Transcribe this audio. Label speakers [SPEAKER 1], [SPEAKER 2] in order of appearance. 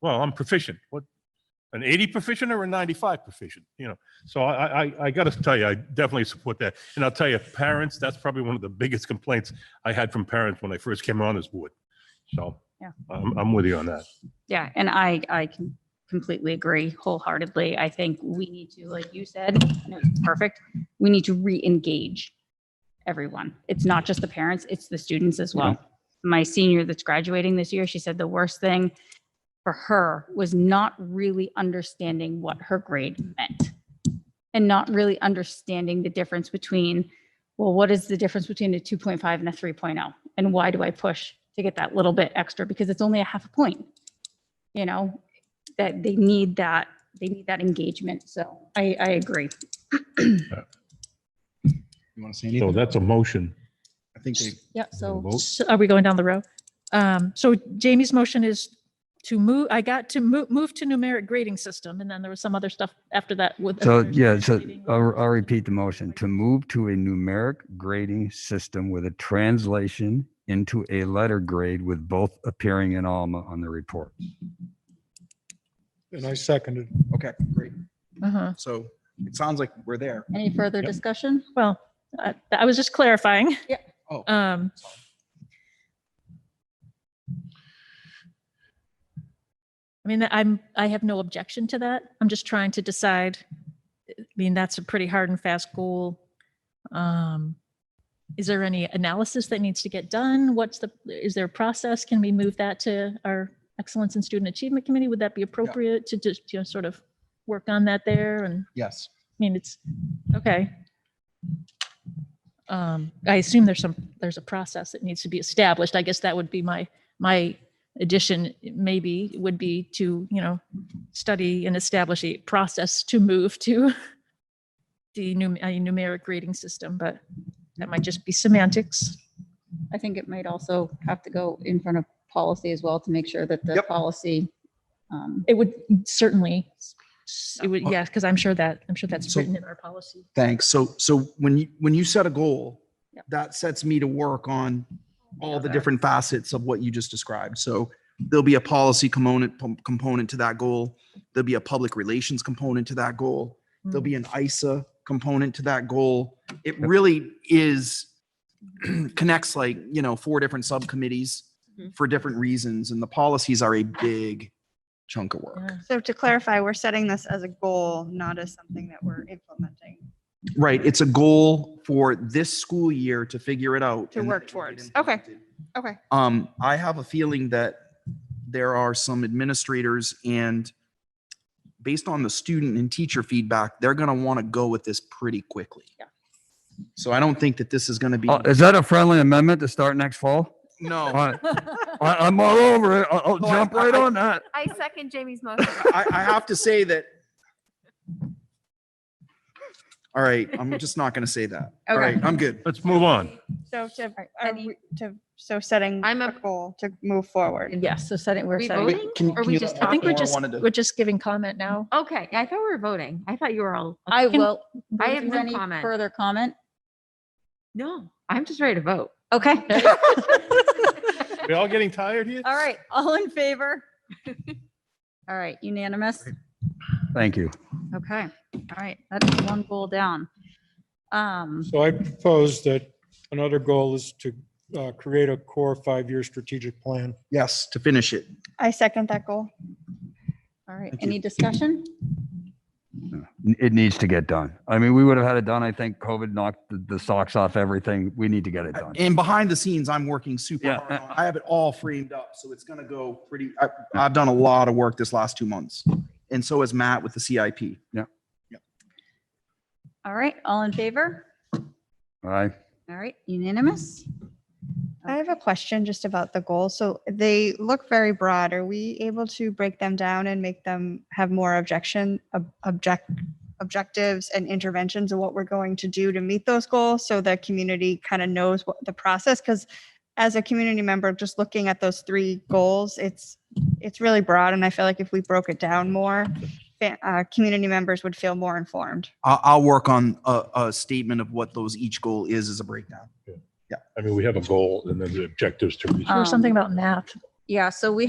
[SPEAKER 1] well, I'm proficient. What, an 80 proficient or a 95 proficient? You know, so I, I, I got to tell you, I definitely support that. And I'll tell you, parents, that's probably one of the biggest complaints I had from parents when I first came on this board. So
[SPEAKER 2] Yeah.
[SPEAKER 1] I'm, I'm with you on that.
[SPEAKER 2] Yeah, and I, I can completely agree wholeheartedly. I think we need to, like you said, and it was perfect, we need to re-engage everyone. It's not just the parents, it's the students as well. My senior that's graduating this year, she said the worst thing for her was not really understanding what her grade meant and not really understanding the difference between, well, what is the difference between a 2.5 and a 3.0? And why do I push to get that little bit extra? Because it's only a half a point you know, that they need that, they need that engagement. So I, I agree.
[SPEAKER 3] You want to
[SPEAKER 1] So
[SPEAKER 3] say anything?
[SPEAKER 1] that's a motion.
[SPEAKER 3] I think they,
[SPEAKER 4] Yeah,
[SPEAKER 1] Wanna
[SPEAKER 4] so
[SPEAKER 1] vote?
[SPEAKER 4] so are we going down the row? Um, so Jamie's motion is to move, I got to move, move to numeric grading system, and then there was some other stuff after that with.
[SPEAKER 5] So,
[SPEAKER 4] there's
[SPEAKER 5] yeah, so
[SPEAKER 4] grading.
[SPEAKER 5] I'll, I'll repeat the motion to move to a numeric grading system with a translation into a letter grade with both appearing in Alma on the report.
[SPEAKER 6] And I seconded.
[SPEAKER 3] okay, great.
[SPEAKER 4] Uh-huh.
[SPEAKER 3] So it sounds like we're there.
[SPEAKER 2] Any further
[SPEAKER 3] Yep.
[SPEAKER 2] discussion?
[SPEAKER 4] Well, I I was just clarifying.
[SPEAKER 2] Yeah.
[SPEAKER 3] Oh.
[SPEAKER 4] Um, I mean, I'm, I have no objection to that. I'm just trying to decide. I mean, that's a pretty hard and fast goal. Um, Is there any analysis that needs to get done? What's the, is there a process? Can we move that to our Excellence in Student Achievement Committee? Would that be appropriate to just, you know, sort of work on that there and?
[SPEAKER 3] Yes.
[SPEAKER 4] I mean, it's, okay. Um, I assume there's some, there's a process that needs to be established. I guess that would be my, my addition maybe would be to, you know, study and establish a process to move to the num- a numeric grading system, but that might just be semantics.
[SPEAKER 2] I think it might also have to go in front of policy as well to make sure that the
[SPEAKER 3] Yep.
[SPEAKER 2] policy. um,
[SPEAKER 4] It would certainly, it would, yeah, because I'm sure that, I'm sure that's
[SPEAKER 3] So-
[SPEAKER 4] written in our policy.
[SPEAKER 3] Thanks. So, so when you, when you set a goal,
[SPEAKER 4] Yep.
[SPEAKER 3] that sets me to work on all the different facets of what you just described. So there'll be a policy component, pom- component to that goal. There'll be a public relations component to that goal. There'll be an ISA component to that goal. It really is connects like, you know, four different subcommittees
[SPEAKER 2] Mhm.
[SPEAKER 3] for different reasons. And the policies are a big chunk of work.
[SPEAKER 4] Yeah.
[SPEAKER 7] So to clarify, we're setting this as a goal, not as something that we're implementing.
[SPEAKER 3] Right, it's a goal for this school year to figure it out.
[SPEAKER 7] To
[SPEAKER 3] and then
[SPEAKER 7] work
[SPEAKER 3] it will get
[SPEAKER 7] towards.
[SPEAKER 3] implemented.
[SPEAKER 7] Okay.
[SPEAKER 3] Um, I have a feeling that there are some administrators and based on the student and teacher feedback, they're gonna want to go with this pretty quickly.
[SPEAKER 2] Yeah.
[SPEAKER 3] So I don't think that this is gonna be,
[SPEAKER 5] Oh, Is that a friendly amendment to start next fall?
[SPEAKER 3] no, I,
[SPEAKER 5] I, I- I'm all over it. I'll, I'll
[SPEAKER 3] No, Oh. I-
[SPEAKER 5] jump right
[SPEAKER 3] I-
[SPEAKER 5] on that.
[SPEAKER 8] I second Jamie's motion.
[SPEAKER 3] I have to say that. All right, I'm just not gonna say that. All
[SPEAKER 7] Okay.
[SPEAKER 3] right, I'm good.
[SPEAKER 1] Let's move on.
[SPEAKER 7] So to,
[SPEAKER 2] right,
[SPEAKER 7] are
[SPEAKER 2] any-
[SPEAKER 7] we- to, so setting
[SPEAKER 8] I'm
[SPEAKER 7] a
[SPEAKER 8] a-
[SPEAKER 7] goal to move forward.
[SPEAKER 2] Yes, so setting, we're
[SPEAKER 8] We
[SPEAKER 2] setting,
[SPEAKER 8] vote?
[SPEAKER 3] Wait, can-
[SPEAKER 8] Or
[SPEAKER 3] can
[SPEAKER 8] we
[SPEAKER 3] you-
[SPEAKER 8] just-
[SPEAKER 4] I think we're
[SPEAKER 3] Laura
[SPEAKER 4] just,
[SPEAKER 3] wanted to-
[SPEAKER 4] we're just giving comment now.
[SPEAKER 8] Okay, I thought we were voting. I thought you were all.
[SPEAKER 2] I
[SPEAKER 4] Can-
[SPEAKER 2] will.
[SPEAKER 8] I
[SPEAKER 2] is
[SPEAKER 8] have
[SPEAKER 2] there
[SPEAKER 8] no
[SPEAKER 2] any
[SPEAKER 8] comment.
[SPEAKER 2] Further comment?
[SPEAKER 8] No, I'm just ready to vote.
[SPEAKER 2] Okay.
[SPEAKER 1] We all getting tired here?
[SPEAKER 2] All right, all in favor? All right, unanimous?
[SPEAKER 5] Thank you.
[SPEAKER 2] Okay, all right, that's one goal down. Um,
[SPEAKER 6] So I propose that another goal is to uh, create a core five-year strategic plan.
[SPEAKER 3] Yes, to finish it.
[SPEAKER 7] I second that goal.
[SPEAKER 2] all right,
[SPEAKER 3] Thank you.
[SPEAKER 2] any discussion?
[SPEAKER 5] N- It needs to get done. I mean, we would have had it done. I think COVID knocked the, the socks off everything. We need to get it done.
[SPEAKER 3] And behind the scenes, I'm working super
[SPEAKER 5] Yeah.
[SPEAKER 3] hard. on it. I have it all framed up, so it's gonna go pretty, I, I've done a lot of work this last two months. And so has Matt with the CIP.
[SPEAKER 2] All right, all in favor?
[SPEAKER 5] All right.
[SPEAKER 2] All right, unanimous?
[SPEAKER 7] I have a question just about the goals. So they look very broad. Are we able to break them down and make them have more objection, ob- object, objectives and interventions of what we're going to do to meet those goals? So the community kind of knows what the process, because as a community member, just looking at those three goals, it's, it's really broad. And I feel like if we broke it down more, fa- uh, community members would feel more informed.
[SPEAKER 3] I'll, I'll work on a, a statement of what those each goal is as a breakdown.
[SPEAKER 1] I mean, we have a goal and then the objectives to reach.
[SPEAKER 4] Or something
[SPEAKER 2] Um,
[SPEAKER 4] about math.
[SPEAKER 2] Yeah, so we